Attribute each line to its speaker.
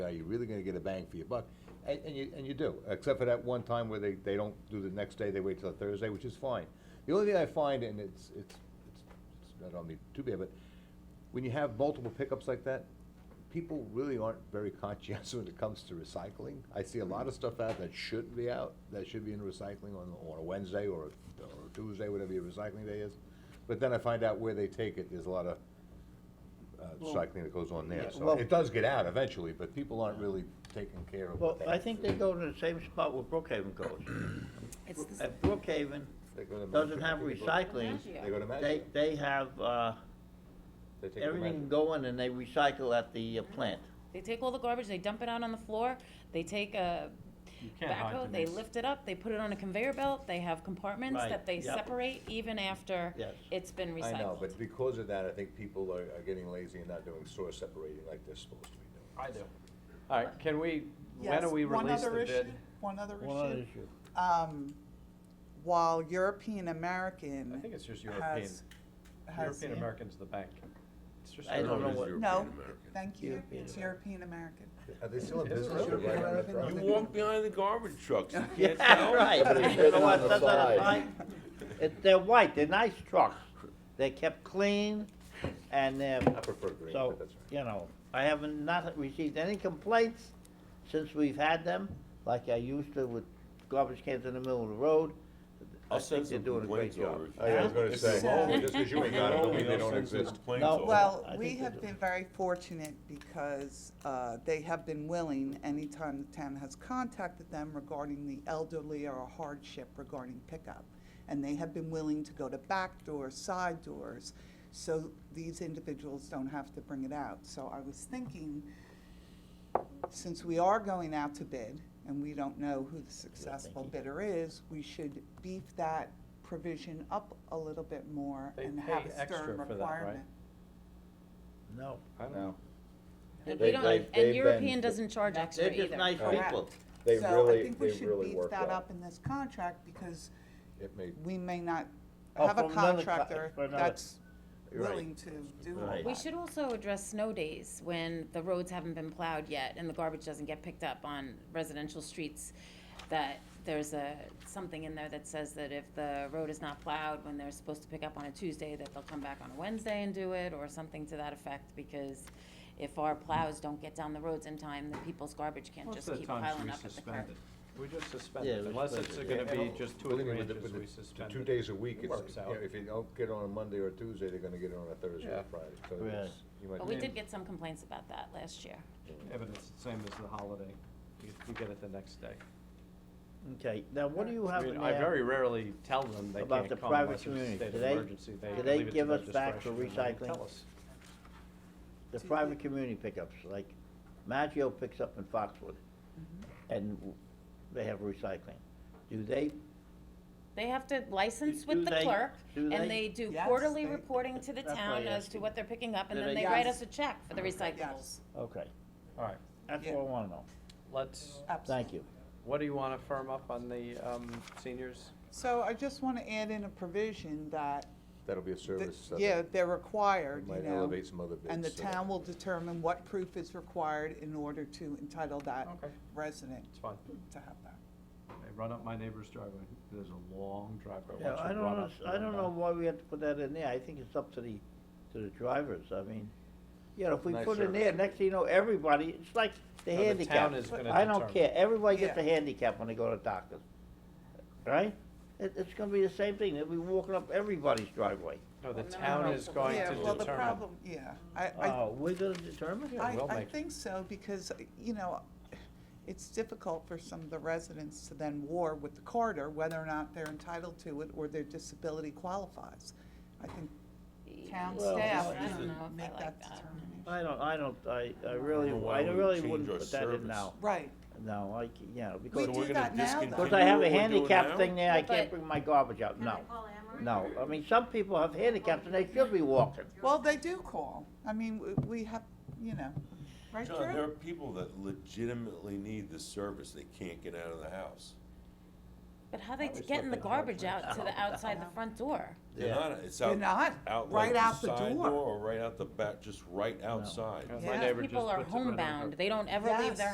Speaker 1: are you really gonna get a bang for your buck? And, and you, and you do, except for that one time where they, they don't do the next day, they wait till Thursday, which is fine. The only thing I find, and it's, it's, it's, it's- I don't mean too bad, but when you have multiple pickups like that, people really aren't very conscientious when it comes to recycling. I see a lot of stuff out that shouldn't be out, that should be in recycling on, on a Wednesday or, a- or a Tuesday, whatever your recycling day is. But then I find out where they take it, there's a lot of, uh,
Speaker 2: Well,
Speaker 1: cycling that goes on there,
Speaker 2: yeah,
Speaker 1: so
Speaker 2: well-
Speaker 1: it does get out eventually, but people aren't really taking care of
Speaker 2: Well,
Speaker 1: what they.
Speaker 2: I think they go to the same spot where Brookhaven goes.
Speaker 3: It's the
Speaker 2: If Brookhaven
Speaker 1: They go to Maggio.
Speaker 2: doesn't have recycling,
Speaker 1: They go to
Speaker 2: they,
Speaker 1: Maggio.
Speaker 2: they have, uh,
Speaker 1: They take the
Speaker 2: everything
Speaker 1: Maggio.
Speaker 2: going and they recycle at the uh, plant.
Speaker 3: They take all the garbage, they dump it out on the floor, they take a
Speaker 4: You can't hide
Speaker 3: backhoe,
Speaker 4: the
Speaker 3: they
Speaker 4: mess.
Speaker 3: lift it up, they put it on a conveyor belt, they have compartments
Speaker 2: Right,
Speaker 3: that they
Speaker 2: yep.
Speaker 3: separate even after
Speaker 2: Yes.
Speaker 3: it's been recycled.
Speaker 1: I know, but because of that, I think people are, are getting lazy and not doing source separating like they're supposed to be doing.
Speaker 4: I do. All right, can we, when
Speaker 5: Yes,
Speaker 4: do we
Speaker 5: one
Speaker 4: release the
Speaker 5: other issue-
Speaker 4: bid?
Speaker 5: One other issue.
Speaker 2: One issue.
Speaker 5: Um, while European
Speaker 4: I
Speaker 5: American
Speaker 4: think it's just European,
Speaker 5: has. has-
Speaker 4: European American's the bank. It's just
Speaker 2: I don't know what-
Speaker 4: European.
Speaker 5: No, thank you, it's European American.
Speaker 1: Are they still in
Speaker 4: Is it
Speaker 1: business?
Speaker 4: really?
Speaker 1: European American?
Speaker 6: You walk behind the garbage trucks, you can't
Speaker 2: Yeah,
Speaker 6: tell.
Speaker 2: right. You know what,
Speaker 1: on the
Speaker 2: that's not
Speaker 1: side.
Speaker 2: a fight. It, they're white, they're nice trucks. They're kept clean and they're,
Speaker 1: I prefer green,
Speaker 2: so,
Speaker 1: but that's all right.
Speaker 2: you know, I haven't not received any complaints since we've had them, like I used to with garbage cans in the middle of the road. I
Speaker 6: I'll send
Speaker 2: think they're doing
Speaker 6: some
Speaker 2: a great
Speaker 6: complaints
Speaker 2: job.
Speaker 6: over. if
Speaker 1: Oh, yeah, I was
Speaker 6: you-
Speaker 1: gonna
Speaker 6: if
Speaker 1: say,
Speaker 6: you're lonely,
Speaker 1: just 'cause you ain't
Speaker 6: if
Speaker 1: got
Speaker 6: you're
Speaker 1: 'em don't
Speaker 6: lonely,
Speaker 1: mean they
Speaker 6: I'll
Speaker 1: don't
Speaker 6: send some
Speaker 1: exist.
Speaker 6: complaints
Speaker 2: No.
Speaker 6: over.
Speaker 5: Well,
Speaker 2: I
Speaker 5: we
Speaker 2: think
Speaker 5: have
Speaker 2: they do.
Speaker 5: been very fortunate because uh, they have been willing, anytime the town has contacted them regarding the elderly or a hardship regarding pickup. And they have been willing to go to back doors, side doors, so these individuals don't have to bring it out. So I was thinking, since we are going out to bid and we don't know who the successful bidder is, we should beef that provision up a little bit more
Speaker 4: They
Speaker 5: and
Speaker 4: pay
Speaker 5: have a
Speaker 4: extra
Speaker 5: stern
Speaker 4: for that, right?
Speaker 5: requirement.
Speaker 2: No.
Speaker 4: I don't know.
Speaker 3: And
Speaker 7: They-
Speaker 3: we don't,
Speaker 7: they've- they've
Speaker 3: and
Speaker 7: been-
Speaker 3: European doesn't charge extra
Speaker 2: They're
Speaker 3: either.
Speaker 2: just nice
Speaker 5: Correct.
Speaker 2: people.
Speaker 7: They
Speaker 5: So I
Speaker 7: really-
Speaker 5: think we
Speaker 7: they
Speaker 5: should
Speaker 7: really
Speaker 5: beef
Speaker 7: work
Speaker 5: that
Speaker 7: well.
Speaker 5: up in this contract because
Speaker 1: It may,
Speaker 5: we may not
Speaker 2: Oh,
Speaker 5: have a
Speaker 2: from another co-
Speaker 5: contractor
Speaker 2: for another-
Speaker 5: that's
Speaker 2: Right.
Speaker 5: willing to do all
Speaker 2: Right.
Speaker 3: We
Speaker 5: that.
Speaker 3: should also address snow days when the roads haven't been plowed yet and the garbage doesn't get picked up on residential streets. That there's a, something in there that says that if the road is not plowed when they're supposed to pick up on a Tuesday, that they'll come back on a Wednesday and do it or something to that effect because if our plows don't get down the roads in time, the people's garbage can't just keep piling up at the curb.
Speaker 4: We just suspend
Speaker 2: Yeah,
Speaker 4: it,
Speaker 2: we
Speaker 4: unless
Speaker 2: suspend
Speaker 4: it's
Speaker 2: it.
Speaker 4: gonna be
Speaker 1: Yeah.
Speaker 4: just two
Speaker 1: Well, I mean, with the-
Speaker 4: branches,
Speaker 1: with the-
Speaker 4: we
Speaker 1: the
Speaker 4: suspend it.
Speaker 1: two days a week,
Speaker 4: It
Speaker 1: it's,
Speaker 4: works
Speaker 1: you
Speaker 4: out.
Speaker 1: know, if you don't get on a Monday or a Tuesday, they're gonna get on a Thursday
Speaker 4: Yeah.
Speaker 1: or Friday, so
Speaker 2: Right.
Speaker 1: it's- you might.
Speaker 3: But we did get some complaints about that last year.
Speaker 4: Yeah, but it's the same as the holiday. You you get it the next day.
Speaker 2: Okay, now what do you
Speaker 4: I
Speaker 2: have in
Speaker 4: mean,
Speaker 2: there?
Speaker 4: I very rarely tell them they
Speaker 2: about
Speaker 4: can't
Speaker 2: the
Speaker 4: come
Speaker 2: private
Speaker 4: unless it's a
Speaker 2: community.
Speaker 4: state
Speaker 2: Do
Speaker 4: of
Speaker 2: they-
Speaker 4: emergency. They
Speaker 2: do they
Speaker 4: leave it to
Speaker 2: give
Speaker 4: their
Speaker 2: us back for
Speaker 4: discretion when they
Speaker 2: recycling?
Speaker 4: tell us.
Speaker 2: the private community pickups, like Maggio picks up in Foxwood, and w- they have recycling. Do they,
Speaker 3: They have to license
Speaker 2: Do-
Speaker 3: with
Speaker 2: do
Speaker 3: the
Speaker 2: they-
Speaker 3: clerk,
Speaker 2: do they-
Speaker 3: and they do
Speaker 5: Yes,
Speaker 3: quarterly
Speaker 5: they-
Speaker 3: reporting to the
Speaker 2: That's why
Speaker 3: town
Speaker 2: I
Speaker 3: as
Speaker 2: asked
Speaker 3: to
Speaker 2: you.
Speaker 3: what they're picking up, and
Speaker 2: Do
Speaker 3: then
Speaker 2: they-
Speaker 3: they write
Speaker 5: Yes.
Speaker 3: us a check for the recyclables.
Speaker 5: Yes,
Speaker 2: okay,
Speaker 4: All right,
Speaker 2: that's
Speaker 5: Yeah.
Speaker 2: what I wanna know.
Speaker 4: let's,
Speaker 5: absolutely.
Speaker 2: Thank you.
Speaker 4: what do you wanna firm up on the, um, seniors?
Speaker 5: So I just want to add in a provision that,
Speaker 1: That'll be a
Speaker 5: the-
Speaker 1: service. uh,
Speaker 5: yeah,
Speaker 1: that
Speaker 5: they're required, you
Speaker 1: Might
Speaker 5: know.
Speaker 1: elevate some other bids.
Speaker 5: And the
Speaker 1: so-
Speaker 5: town will determine what proof is required in order to entitle that
Speaker 4: Okay.
Speaker 5: resident
Speaker 4: It's fine.
Speaker 5: to have that.
Speaker 4: They run up my neighbor's driveway. There's a long driveway.
Speaker 2: Yeah,
Speaker 4: Once you
Speaker 2: I don't,
Speaker 4: run
Speaker 2: know-
Speaker 4: up to
Speaker 2: I
Speaker 4: the
Speaker 2: don't know
Speaker 4: back-
Speaker 2: why we have to put that in there, I think it's up to the, to the drivers, I mean, you know, if we
Speaker 1: Nice
Speaker 2: put in there,
Speaker 1: service.
Speaker 2: next thing you know, everybody, it's like the
Speaker 4: No, the
Speaker 2: handicap.
Speaker 4: town is gonna
Speaker 2: I don't
Speaker 4: determine.
Speaker 2: care, everybody gets
Speaker 5: Yeah.
Speaker 2: a handicap when they go to doctors, right? It, it's gonna be the same thing, they'll be walking up everybody's driveway.
Speaker 4: No,
Speaker 3: Well,
Speaker 4: the
Speaker 3: no,
Speaker 4: town
Speaker 3: no,
Speaker 4: is
Speaker 3: no.
Speaker 4: going
Speaker 5: Yeah,
Speaker 4: to
Speaker 5: well, the
Speaker 4: determine.
Speaker 5: problem, yeah, I, I
Speaker 2: Oh, we're gonna determine?
Speaker 4: Yeah,
Speaker 5: I,
Speaker 4: we'll
Speaker 5: I
Speaker 4: make-
Speaker 5: think so, because, you know, it's difficult for some of the residents to then war with the corridor, whether or not they're entitled to it or their disability qualifies. I think town
Speaker 3: Well,
Speaker 5: staff
Speaker 3: I don't
Speaker 5: should
Speaker 3: know if I
Speaker 5: make
Speaker 3: like
Speaker 5: that
Speaker 3: that.
Speaker 5: determination.
Speaker 2: I don't, I don't, I, I really,
Speaker 6: Why
Speaker 2: I
Speaker 6: would we
Speaker 2: really
Speaker 6: change
Speaker 2: wouldn't
Speaker 6: our
Speaker 2: put that in
Speaker 6: service?
Speaker 2: now,
Speaker 5: Right,
Speaker 2: no, I, c- you know,
Speaker 5: we
Speaker 2: because,
Speaker 6: we're
Speaker 5: do
Speaker 6: gonna
Speaker 5: that now,
Speaker 6: discontinue-
Speaker 5: though.
Speaker 2: because I have a
Speaker 6: What we're doing
Speaker 2: handicap
Speaker 6: now?
Speaker 2: thing there, I
Speaker 3: But-
Speaker 2: can't bring my garbage out, no. No, I mean, some people have handicaps and they should be walking,
Speaker 5: Well, they do call, I mean, w- we have, you know, right,
Speaker 6: John, there are
Speaker 5: Drew?
Speaker 6: people that legitimately need this service, they can't get out of the house.
Speaker 3: But how they
Speaker 2: Always
Speaker 3: getting the
Speaker 2: looking hard
Speaker 3: garbage
Speaker 2: for
Speaker 3: out to the outside the front door?
Speaker 6: They're
Speaker 2: Yeah.
Speaker 6: not, it's
Speaker 5: They're
Speaker 6: out,
Speaker 5: not,
Speaker 6: out like
Speaker 5: right
Speaker 6: the
Speaker 5: out the
Speaker 6: side door
Speaker 5: door.
Speaker 6: or right out the back, just right outside.
Speaker 5: Yeah.
Speaker 4: My neighbor just
Speaker 3: People are
Speaker 4: puts it right on her
Speaker 3: homebound, they don't ever leave their
Speaker 5: Yes.